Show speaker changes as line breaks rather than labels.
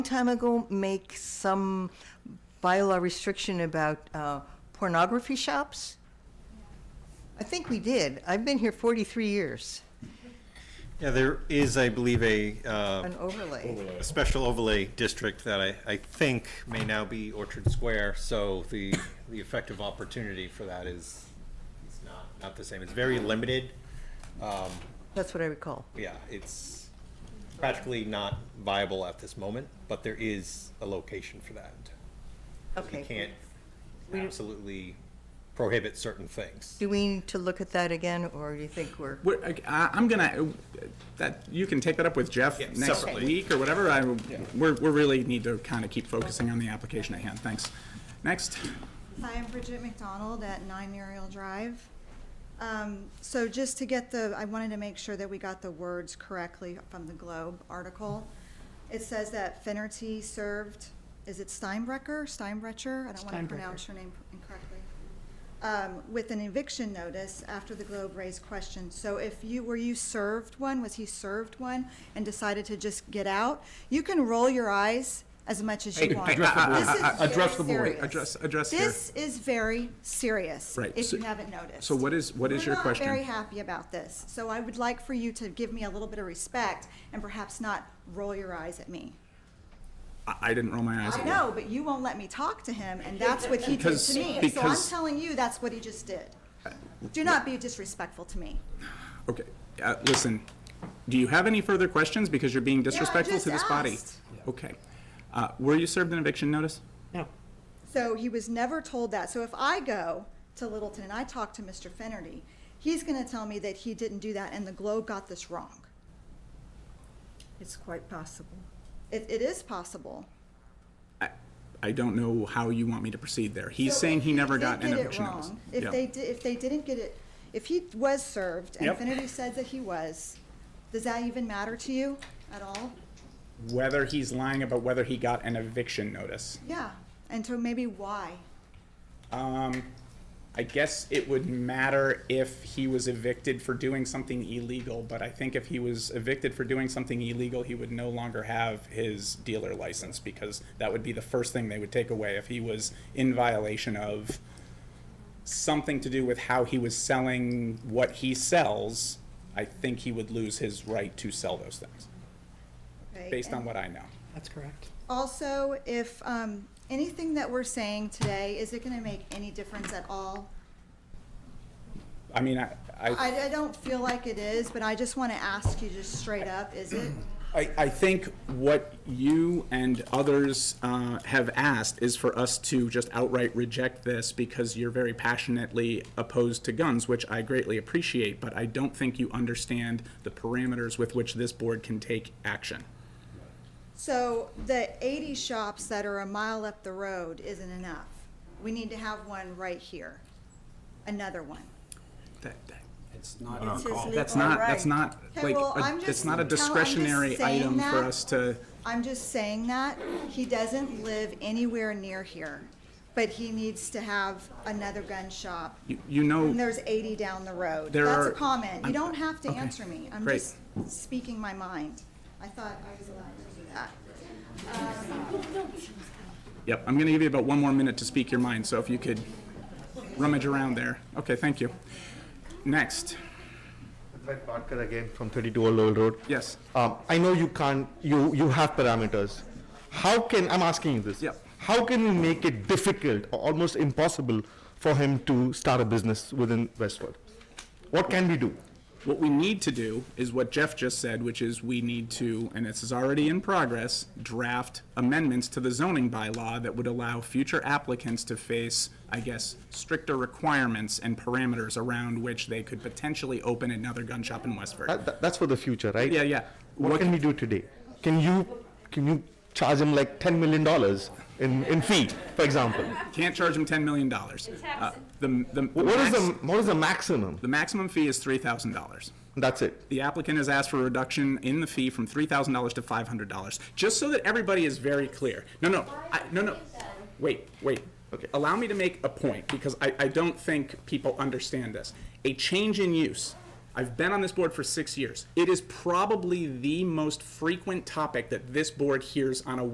time ago make some bylaw restriction about uh, pornography shops? I think we did. I've been here 43 years,
Yeah, there is, I believe, a, uh,
an overlay.
a special overlay district that I, I think may now be Orchard Square, so the, the effective opportunity for that is, is not, not the same. It's very limited. Um,
That's what I recall.
Yeah, it's practically not viable at this moment, but there is a location for that. You
Okay.
can't absolutely prohibit certain things.
Do we need to look at that again, or do you think we're,
What, I- I, I'm gonna, that, you can take that up with Jeff
Yeah,
next
separately.
week or whatever. I, we're, we really need to kind of keep focusing on the application at hand. Thanks. Next.
Hi, I'm Bridget McDonald at 9 Muriel Drive. Um, So just to get the, I wanted to make sure that we got the words correctly from the Globe article. It says that Finerty served, is it Steinbrecher, Steinbrecher? I don't want to pronounce your name incorrectly. Um, With an eviction notice after the Globe raised questions. So if you, were you served one, was he served one and decided to just get out? You can roll your eyes as much as you want.
address the board.
This is very
Address the board. Address-
serious.
address here.
This is very serious,
Right,
if
so-
you haven't noticed.
so what is- what is your question?
We're not very happy about this, so I would like for you to give me a little bit of respect and perhaps not roll your eyes at me.
I, I didn't roll my eyes.
I
at you.
know, but you won't let me talk to him, and that's what he did
Because-
to me. So I'm
because-
telling you, that's what he just did. Do not be disrespectful to me.
Okay, uh, listen, do you have any further questions? Because you're being disrespectful to
just
this body.
asked.
Okay. Uh, were you served an eviction notice?
So he was never told that. So if I go to Littleton and I talk to Mr. Finnerty, he's gonna tell me that he didn't do that and the Globe got this wrong.
It's quite possible.
It, it is possible.
I, I don't know how you want me to proceed there. He's
So
saying
if
he never
did
got an
get it
eviction notice.
wrong, If
Yeah.
they, di- if they didn't get it, if he was served, and
Yep.
Finnerty said that he was, does that even matter to you at all?
Whether he's lying about whether he got an eviction notice.
Yeah, and so maybe why?
Um, I guess it would matter if he was evicted for doing something illegal, but I think if he was evicted for doing something illegal, he would no longer have his dealer license because that would be the first thing they would take away if he was in violation of something to do with how he was selling what he sells. I think he would lose his right to sell those things,
okay?
based on
And
what I know.
That's correct.
Also, if, um, anything that we're saying today, is it gonna make any difference at all?
I mean, I, I,
I, I don't feel like it is, but I just wanna ask you just straight up, is it?
I, I think what you and others uh, have asked is for us to just outright reject this because you're very passionately opposed to guns, which I greatly appreciate, but I don't think you understand the parameters with which this board can take action.
So the eighty shops that are a mile up the road isn't enough. We need to have one right here, another one.
That- that-
It's not
It's his legal
That's not, that's
right.
not,
Okay,
like,
well,
a-
I'm
it's
just-
not a
no, I'm just
discretionary
saying
item for
that.
us to,
I'm just saying that. He doesn't live anywhere near here, but he needs to have another gun shop.
you- you know.
And there's eighty down the road.
There
That's
are-
a comment.
I'm-
You don't have to
okay,
answer me. I'm
great.
just speaking my mind. I thought I was allowed to do that.
Yep, I'm going to give you about one more minute to speak your mind, so if you could rummage around there. Okay, thank you. Next,
Brett Barker again from 32 Old Lowell Road.
yes.
Um, I know you can't, you, you have parameters. How can, I'm asking you this.
Yep.
How can we make it difficult, or almost impossible, for him to start a business within Westwood? What can we do?
What we need to do is what Jeff just said, which is we need to, and this is already in progress, draft amendments to the zoning bylaw that would allow future applicants to face, I guess, stricter requirements and parameters around which they could potentially open another gun shop in Westford.
That, that- that's for the future, right?
Yeah, yeah.
What
What-
can we do today? Can you, can you charge him like $10 million in, in fee, for example?
Can't charge them $10 million. Uh, The, the.
What is the,
max-
what is the maximum?
The maximum fee is $3,000.
That's it.
The applicant has asked for a reduction in the fee from three thousand dollars to five hundred dollars, just so that everybody is very clear. No, no, I, no, no. Wait, wait. Okay. Allow me to make a point because I, I don't think people understand this. A change in use. I've been on this board for six years. It is probably the most frequent topic that this board hears on a